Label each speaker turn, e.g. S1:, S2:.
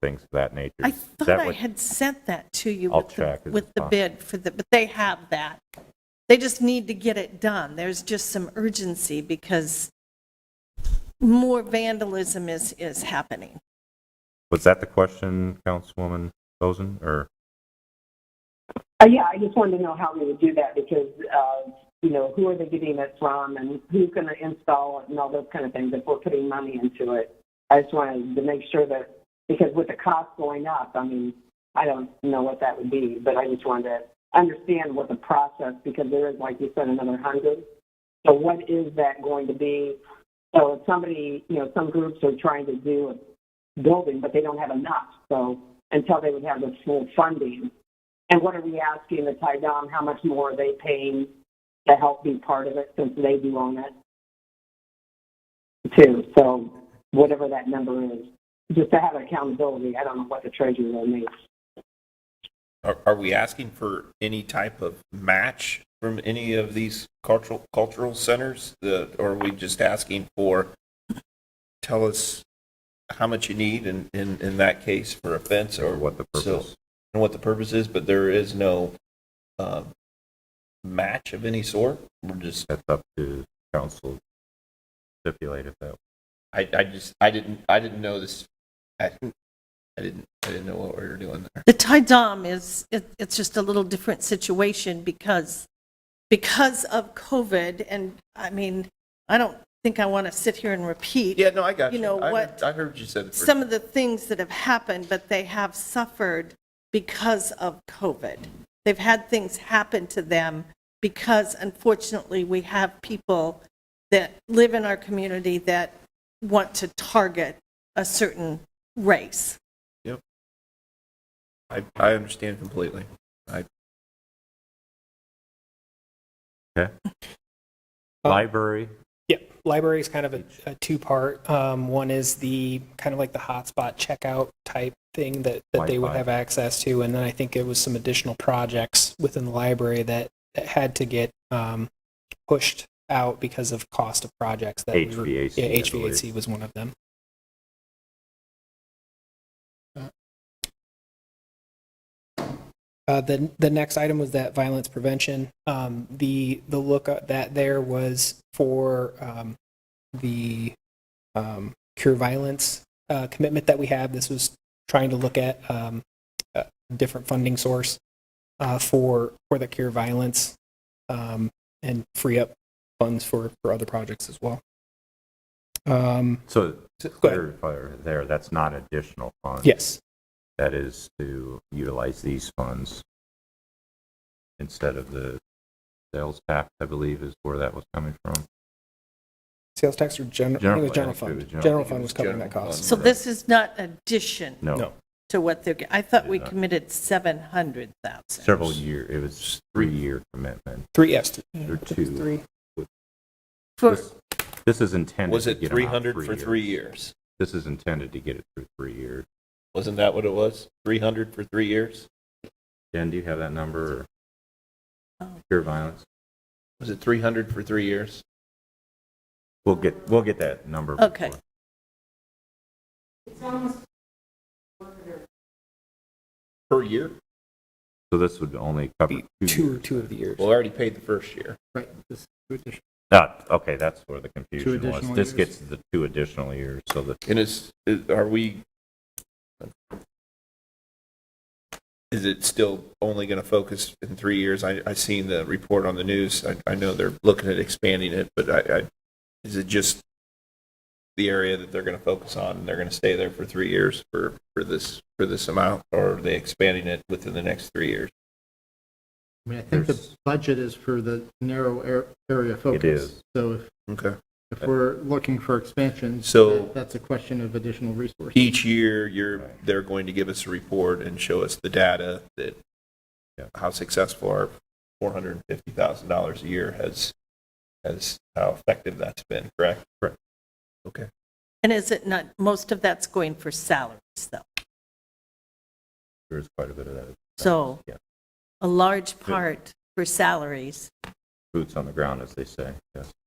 S1: things of that nature.
S2: I
S1: Is
S2: thought
S1: that
S2: I
S1: what-
S2: had sent that to you
S1: I'll
S2: with the,
S1: check. Is it
S2: with the
S1: possible?
S2: bid for the, but they have that. They just need to get it done. There's just some urgency because more vandalism is, is happening.
S1: Was that the question, Councilwoman Bozen, or?
S3: Uh, yeah, I just wanted to know how we would do that because, uh, you know, who are they getting it from and who's going to install it and all those kind of things if we're putting money into it. I just wanted to make sure that, because with the cost going up, I mean, I don't know what that would be, but I just wanted to understand what the process, because there is, like you said, another hundred. So what is that going to be? So if somebody, you know, some groups are trying to do a building, but they don't have enough. So until they would have the full funding, and what are we asking the Tydom, how much more are they paying to help be part of it since they do own it? Too, so whatever that number is, just to have accountability, I don't know what the treasurer makes.
S4: Are, are we asking for any type of match from any of these cultural, cultural centers? The, or are we just asking for, tell us how much you need in, in, in that case for a fence or?
S1: Or what the
S4: so-
S1: purpose.
S4: And what the purpose is, but there is no, uh, match of any sort? We're just,
S1: That's up to council stipulated that.
S4: I, I just, I didn't, I didn't know this. I, I didn't, I didn't know what we were doing there.
S2: The tie dom is, it, it's just a little different situation because, because of COVID and, I mean, I don't think I want to sit here and repeat.
S4: Yeah, no, I got you.
S2: You know
S4: I
S2: what-
S4: heard- I heard you said it. first.
S2: some of the things that have happened, but they have suffered because of COVID. They've had things happen to them because unfortunately, we have people that live in our community that want to target a certain race.
S4: I, I understand completely. I,
S5: Um,
S1: Library,
S5: Yeah, library is kind of a, a two-part. Um, one is the kind of like the hotspot checkout type thing that, that they would
S1: Wi-Fi.
S5: have access to, and then I think it was some additional projects within the library that, that had to get um, pushed out because of cost of projects. That we were-
S1: HVAC, I
S5: yeah,
S1: believe.
S5: HVAC was one of them. Uh, the the next item was that violence prevention. Um, the the look at that there was for um, the um, cure violence uh, commitment that we have. This was trying to look at um, a different funding source uh, for for the cure violence um, and free up funds for for other projects as well. Um,
S1: so to
S5: Go ahead.
S1: clarify there, that's not additional funds.
S5: yes,
S1: That is to utilize these funds instead of the sales tax, I believe, is where that was coming from.
S5: sales tax or general. I think it
S1: General,
S5: was
S1: I
S5: general
S1: think it
S5: fund.
S1: was
S5: General,
S1: general.
S5: fund was covering that cost.
S2: So this is not addition
S1: No,
S5: No.
S2: to what they're, I thought we
S1: Yeah.
S2: committed 700,000.
S1: several year, it was three-year commitment.
S5: Three yes,
S1: There are two.
S5: Three.
S2: For-
S1: This- This is intended.
S4: was
S1: to
S4: it
S1: get 'em out
S4: 300 for three
S1: years.
S4: years?
S1: This is intended to get it through three years.
S4: Wasn't that what it was? 300 for three years?
S1: Dan, do you have that number? or
S2: Oh.
S1: Pure violence?
S4: Was it 300 for three years?
S1: We'll get, we'll get that number.
S2: Okay.
S1: before.
S4: Per year?
S1: So this would only cover two
S5: two
S1: years.
S5: two of the years.
S4: Well, I already paid the first year.
S6: Right, this addition.
S1: Not, okay, that's where the confusion was.
S6: additional
S1: This
S6: years.
S1: gets the two additional years, so the,
S4: And is, is- are we, is it still only going to focus in three years? I, I seen the report on the news. I, I know they're looking at expanding it, but I, I, is it just the area that they're going to focus on and they're going to stay there for three years for, for this, for this amount? Or are they expanding it within the next three years?
S6: I mean, I think the
S1: There's-
S6: budget is for the narrow ar- area of focus.
S1: is.
S6: So if,
S4: Okay.
S6: if we're looking for expansion,
S4: So-
S6: that- that's a question of additional resources.
S4: each year, you're, they're going to give us a report and show us the data that,
S1: Yeah.
S4: how successful our four hundred and fifty thousand dollars a year has, has, how effective that's been, correct?
S1: Correct.
S4: Okay.
S2: And is it not, most of that's going for salaries though?
S1: there's quite a bit of that.
S2: So
S1: Yeah.
S2: a large part for salaries.
S1: Boots on the ground, as they say, yes.